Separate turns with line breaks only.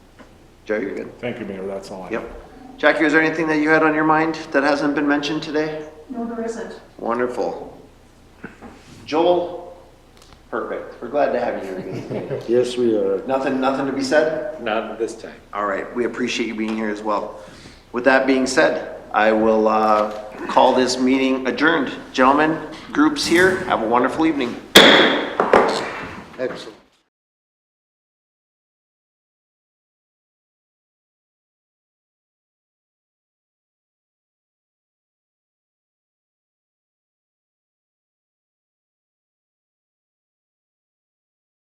Joe, you're good.
Thank you, Mayor, that's all I have.
Yep. Jackie, is there anything that you had on your mind that hasn't been mentioned today?
No, there isn't.
Wonderful. Joel, perfect. We're glad to have you here.
Yes, we are.
Nothing, nothing to be said?
Not this time.
All right, we appreciate you being here as well. With that being said, I will uh, call this meeting adjourned. Gentlemen, groups here, have a wonderful evening.
Excellent.